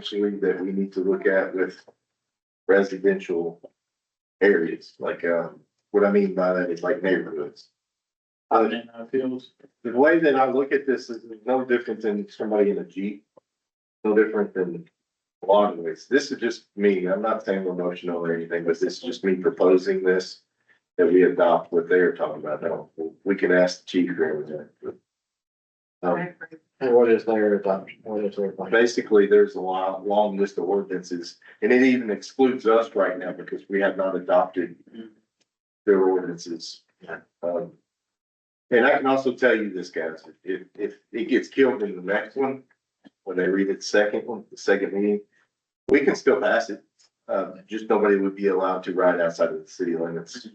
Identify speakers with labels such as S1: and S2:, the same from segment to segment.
S1: actually that we need to look at with residential areas, like, um, what I mean by that is like neighborhoods. Uh,
S2: And I feels,
S1: The way that I look at this is no different than somebody in a Jeep, no different than a lot of ways. This is just me, I'm not saying we're emotional or anything, but this is just me proposing this that we adopt what they're talking about now. We can ask the chief or anything. Um,
S2: and what is their adoption, what is their plan?
S1: basically, there's a long, long list of ordinances, and it even excludes us right now because we have not adopted their ordinances.
S2: Yeah.
S1: Um, and I can also tell you this, guys, if, if it gets killed in the next one, when they read it second one, the second meeting, we can still pass it. Uh, just nobody would be allowed to ride outside of the city limits.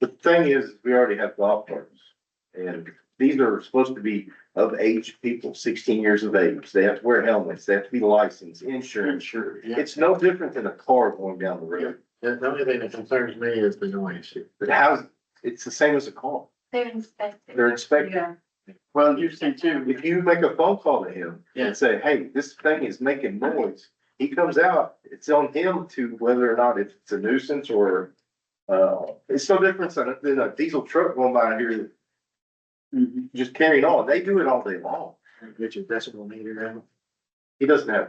S1: The thing is, we already have golf carts, and these are supposed to be of age people, sixteen years of age. They have to wear helmets, they have to be licensed, insurance.
S2: Sure, yeah.
S1: It's no different than a car going down the road.
S2: The the only thing that concerns me is the noise.
S1: But how's, it's the same as a car.
S3: They're inspected.
S1: They're inspected.
S3: Yeah.
S2: Well, you say too.
S1: If you make a phone call to him
S2: Yeah.
S1: and say, hey, this thing is making noise, he comes out, it's on him to whether or not it's a nuisance or, uh, it's no difference than a, than a diesel truck going by here
S2: Mm-hmm.
S1: just carrying on. They do it all day long.
S2: Get your decibel meter out.
S1: He doesn't have,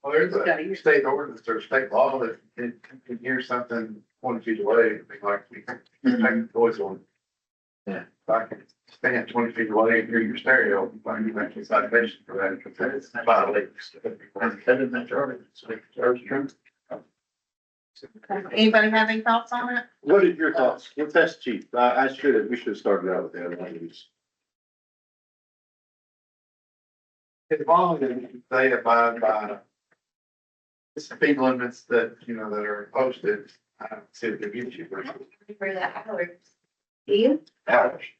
S4: Well, there's a state ordinance or state law that it can- can hear something twenty feet away, it'd be like, we can make
S2: Mm-hmm.
S4: the noise on.
S2: Yeah.
S4: If I can stand twenty feet away and hear your stereo, I can make a citation for that, because that's violates.
S2: Better than that ordinance.
S3: Anybody have any thoughts on it?
S1: what are your thoughts? What's that, chief? I, I should have, we should have started out with that. I guess.
S4: As long as they abide by the speed limits that, you know, that are posted, I
S2: uh,
S4: don't see the issue.
S3: I don't remember the hours. Do you?
S1: Ouch.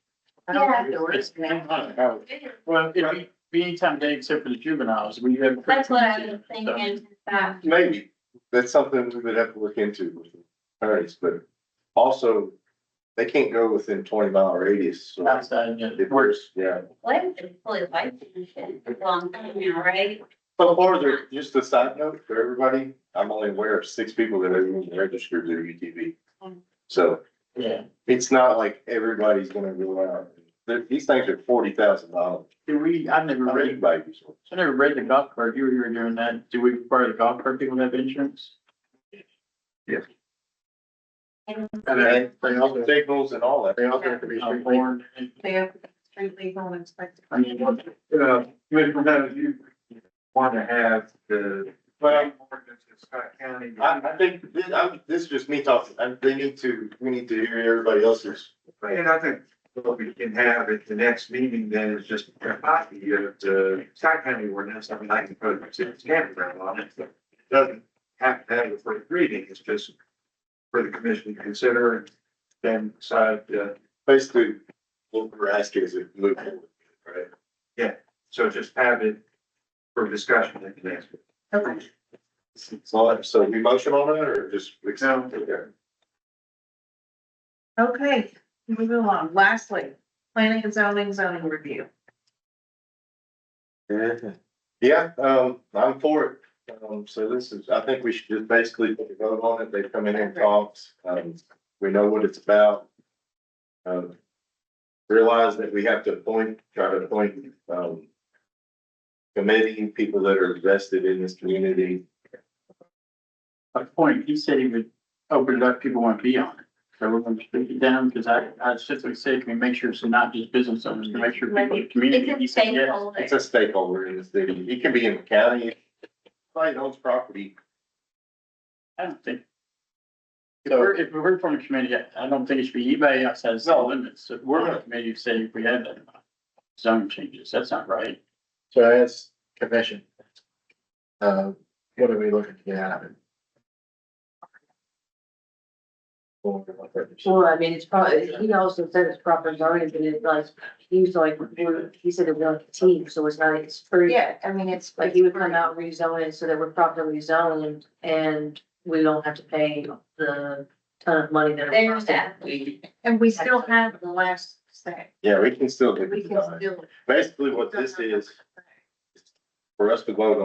S3: I don't have the words. now.
S2: Well, it'd be- be anytime day except for the juveniles, we have.
S3: That's what I was thinking, that,
S1: Maybe, that's something we would have to look into with attorneys, but also, they can't go within twenty mile radius, so.
S2: Outside, yeah,
S1: It works, yeah.
S3: what if it's fully licensed, it's long time now, right?
S1: So far, there, just a side note for everybody, I'm only aware of six people that have even registered their UTV. So
S2: yeah.
S1: it's not like everybody's gonna go out, There- these things are forty thousand dollars.
S2: Do we, I've never read, I never read the golf cart, you were here doing that, do we require the golf cart people to have insurance?
S3: And
S1: And
S2: They also,
S1: signals and all that.
S2: they
S3: also have
S2: to be. Born.
S3: they have street legal and inspected.
S2: I mean, what-
S4: Uh, Commissioner, Bennett, you want to have the.
S1: Well,
S4: ordinance in Scott County.
S1: I, I think, this, I'm, this is just me talking, I, they need to, we need to hear everybody else's
S4: And I think what we can have at the next meeting then is just a copy of the Scott County ordinance, I mean, I can put it to the campground on it. but It doesn't have to have a first reading, it's just for the commission to consider and then decide, uh,
S1: basically, what we're asking is to move forward, right?
S4: so just have it for discussion at the next. meeting.
S3: Okay.
S1: So, so we motion on that or just?
S4: No.
S3: Okay, moving along, lastly, planning and zoning zoning review.
S1: Okay. Yeah, um, I'm for it. Um, so this is, I think we should just basically put a vote on it. They've come in and talked. Um, we know what it's about. Um, realize that we have to appoint, try to appoint, um, committee, people that are vested in this community.
S2: a point, he said he would open it up, people want to be on it. So we're gonna speak it down, because I, I specifically said, can we make sure it's not just business owners, to make sure people in the community. He
S3: It's a
S2: said, yes.
S3: stakeholder.
S1: It's a stakeholder in the city. It can be in the county. Somebody owns property.
S2: I don't think. If we're, if we're from the committee, I- I don't think it should be anybody outside the city
S1: No.
S2: limits. So We're on the committee, who said if we had that. Zone changes, that's not right.
S5: So as commission, uh, what are we looking to get out of it? Or what purpose?
S6: Well, I mean, it's probably, he also said it's proper zoning, but it's like, he was like, we're- he said it was like a team, so it's not, it's free.
S3: Yeah, I mean, it's.
S6: Like he would come out and rezone it so that we're properly zoned and we don't have to pay the ton of money that. it
S3: There's
S6: costs.
S3: that. And we still have the last say.
S1: Yeah, we can still. get it
S3: We can
S1: done.
S3: still.
S1: Basically what this is, for us to vote on.